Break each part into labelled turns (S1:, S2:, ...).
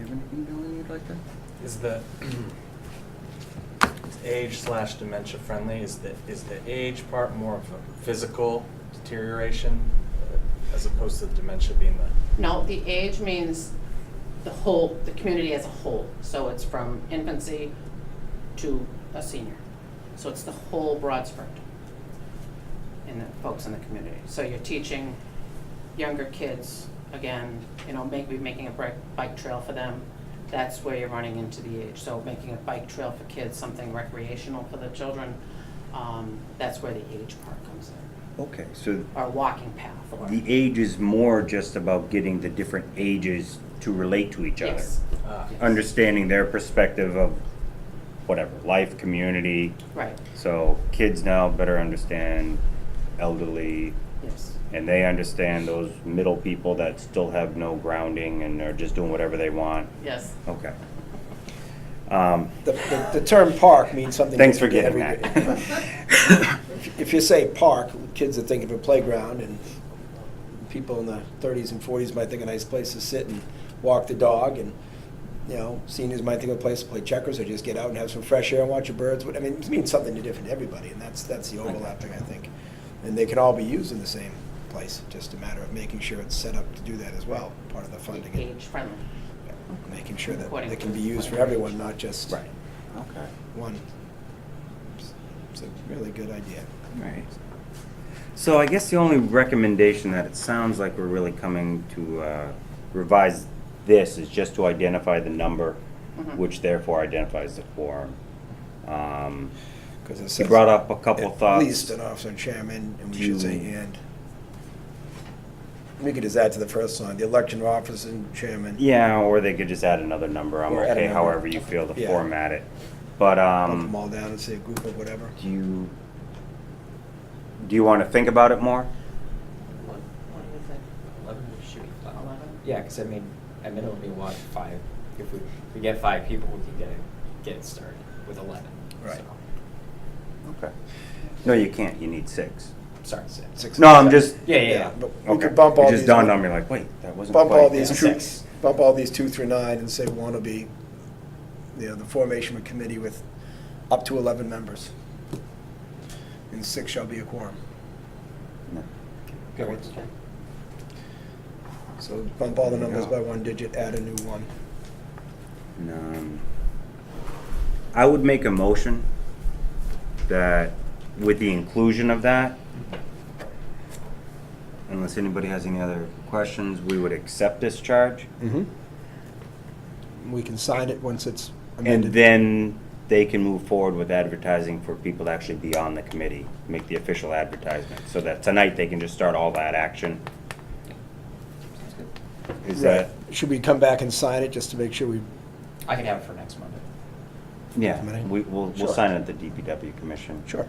S1: have anything, Dylan, you'd like to?
S2: Is the age slash dementia friendly, is the, is the age part more of a physical deterioration uh, as opposed to dementia being the,
S3: No, the age means the whole, the community as a whole. So it's from infancy to a senior. So it's the whole broad spectrum in the folks in the community. So you're teaching younger kids, again, you know, maybe making a bike, bike trail for them. That's where you're running into the age. So making a bike trail for kids, something recreational for the children, um, that's where the age part comes in.
S4: Okay, so
S3: Or walking path or.
S4: the age is more just about getting the different ages to relate to each other.
S3: Yes,
S2: ah,
S3: yes.
S4: Understanding their perspective of whatever, life, community.
S3: Right,
S4: So kids now better understand elderly,
S3: yes.
S4: and they understand those middle people that still have no grounding and are just doing whatever they want.
S3: Yes.
S4: Okay. Um,
S5: The, the- the term park means something.
S4: Thanks for
S5: different
S4: getting
S5: to everybody.
S4: that.
S5: If you say park, kids are thinking of a playground, and people in the thirties and forties might think a nice place to sit and walk the dog, and, you know, seniors might think of a place to play checkers, or just get out and have some fresh air and watch the birds, What- I mean, it means something different to everybody, and that's, that's the overlap thing, I think. And they can all be used in the same place, just a matter of making sure it's set up to do that as well, part of the funding. and
S3: Age friendly.
S5: Making sure that
S3: According
S5: it can
S3: to-
S5: be used for everyone, not just.
S4: Right.
S1: Okay,
S5: one. It's a really good idea.
S1: all right.
S4: So I guess the only recommendation that it sounds like we're really coming to uh, revise this is just to identify the number,
S3: Mhm.
S4: which therefore identifies the quorum. Um,
S5: Because it
S4: He
S5: says
S4: brought up a couple
S5: at
S4: thoughts.
S5: least an officer and chairman, and we should say
S4: Do-
S5: and. We could just add to the first line, the election of officer and chairman.
S4: Yeah, or they could just add another number. I'm
S5: Or add a
S4: okay,
S5: number.
S4: however you feel to
S5: Yeah.
S4: format it. But,
S5: Lump them
S4: um,
S5: all down and say a group or whatever.
S4: do you, do you want to think about it more?
S6: What, what do you think? Eleven should be five.
S3: Eleven?
S6: Yeah, because I mean, at minimum, we want five. If we, if we get five people, we can get it, get it started with eleven.
S5: Right.
S6: So,
S4: Okay. No, you can't. You need six.
S6: sorry, six.
S5: Six.
S4: No, I'm just,
S6: Yeah, yeah.
S5: Yeah,
S6: yeah.
S5: but we
S4: okay.
S5: could bump all
S4: It
S5: these.
S4: just dawned on me like, wait, that wasn't quite.
S5: Bump all these
S6: yeah.
S5: two,
S6: Six.
S5: bump all these two through nine and say one will be, you know, the formation of a committee with up to eleven members. And six shall be a quorum.
S4: No.
S6: Good work.
S5: So bump all the numbers
S4: There you
S5: by
S4: go.
S5: one digit, add a new one.
S4: Um, I would make a motion that with the inclusion of that, unless anybody has any other questions, we would accept this charge.
S5: We can sign it once it's
S4: Mm-hmm. And
S5: amended.
S4: then they can move forward with advertising for people to actually be on the committee, make the official advertisement, so that tonight they can just start all that action. Is that,
S5: Right. Should we come back and sign it just to make sure we,
S6: I can have it for next Monday.
S4: yeah,
S5: Committee?
S4: we, we'll, we'll
S5: Sure.
S4: sign it at the DPW commission.
S5: sure.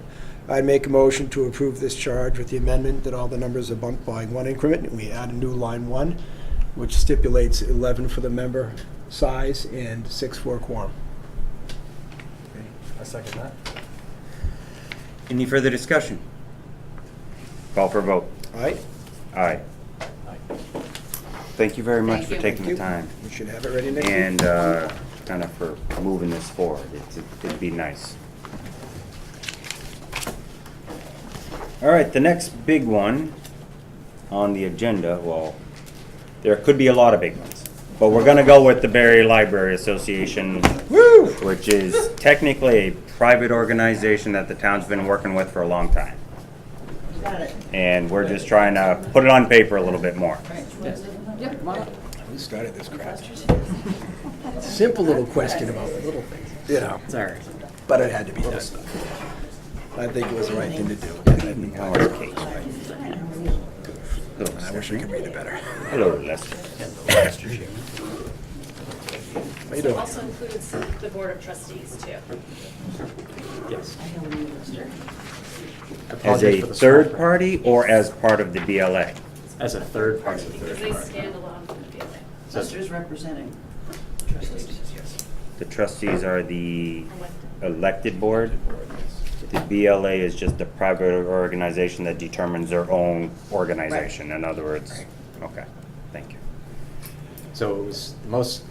S5: I make a motion to approve this charge with the amendment that all the numbers are bumped by one increment, and we add a new line one, which stipulates 11 for the member size and six for a quorum.
S2: I second that.
S4: Any further discussion? Call for a vote.
S5: All right?
S4: All right. Thank you very much
S3: Thank
S4: for
S3: you.
S4: taking the
S5: You-
S4: time
S5: We should have it ready next week.
S4: and kind of for moving this forward. It's- It'd be nice. All right, the next big one on the agenda, well, there could be a lot of big ones, but we're going to go with the Barry Library Association,
S5: Woo!
S4: which is technically a private organization that the town's been working with for a long time. And we're just trying to put it on paper a little bit more.
S5: Who started this crap? Simple little question about little things, you know,
S6: Sorry.
S5: but it had to be done. I think it was the right thing to do. and I think
S4: How are cakes, right?
S5: I wish we could read it better.
S4: Hello, Lester.
S5: How you doing?
S7: Also includes the Board of Trustees, too.
S6: Yes.
S4: As
S6: Apologies
S4: a
S6: for the
S4: third
S6: small print.
S4: party or as part of the BLA?
S6: As a third party.
S7: Because they stand alone from the building.
S6: So-
S8: Lester's representing trustees.
S4: The trustees are the elected board. The BLA is just a private organization that determines their own organization. In other words, okay, thank you.
S6: So it was the most